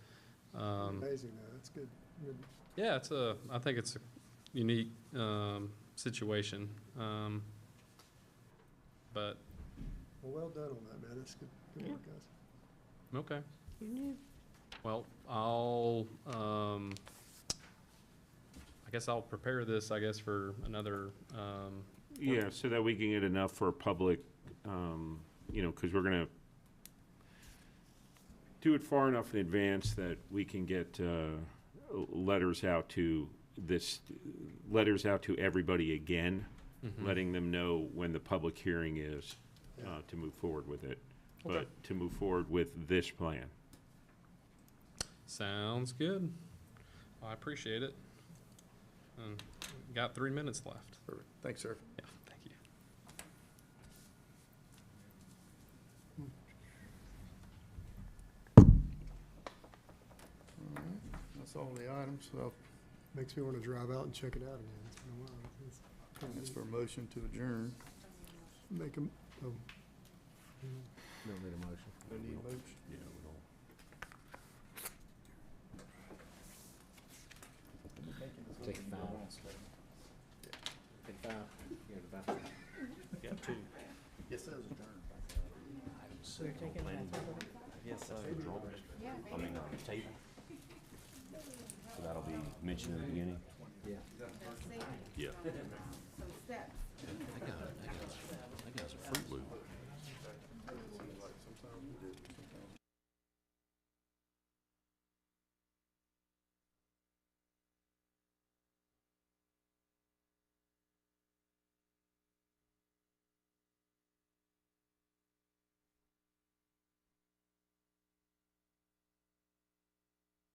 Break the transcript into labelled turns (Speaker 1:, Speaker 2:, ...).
Speaker 1: Um,
Speaker 2: Amazing, though, that's good. Good.
Speaker 3: Um, Yeah, it's a, I think it's a unique um, situation. um, But,
Speaker 2: Well, well done on that, man, that's good, good work, guys.
Speaker 3: okay. Well, I'll, um, I guess I'll prepare this, I guess, for another, um,
Speaker 4: Yeah, so that we can get enough for public, um, you know, because we're gonna do it far enough in advance that we can get, uh, l- letters out to this, letters out to everybody again,
Speaker 3: mhm.
Speaker 4: letting them know when the public hearing is,
Speaker 2: Hmm. Yeah.
Speaker 4: uh, to move forward with it.
Speaker 2: Okay.
Speaker 4: But to move forward with this plan.
Speaker 3: sounds good. I appreciate it. Um, Got three minutes left.
Speaker 1: Perfect. Thanks, sir.
Speaker 3: Yeah, thank you.
Speaker 1: All right. That's all the items. So
Speaker 2: Makes me want to drive out and check it out again, it's been a while. It's-
Speaker 1: it's for a motion to adjourn.
Speaker 2: Make 'em- oh.
Speaker 5: Don't need a motion.
Speaker 1: No need motion.
Speaker 4: Yeah,
Speaker 5: Take five. Take five. You're the bathroom.
Speaker 6: Got two.
Speaker 1: Yes, that was adjourned.
Speaker 6: Yes, sir. I mean, uh, table. So that'll be mentioned in the beginning.
Speaker 4: Yeah.
Speaker 7: steps.
Speaker 5: I got it.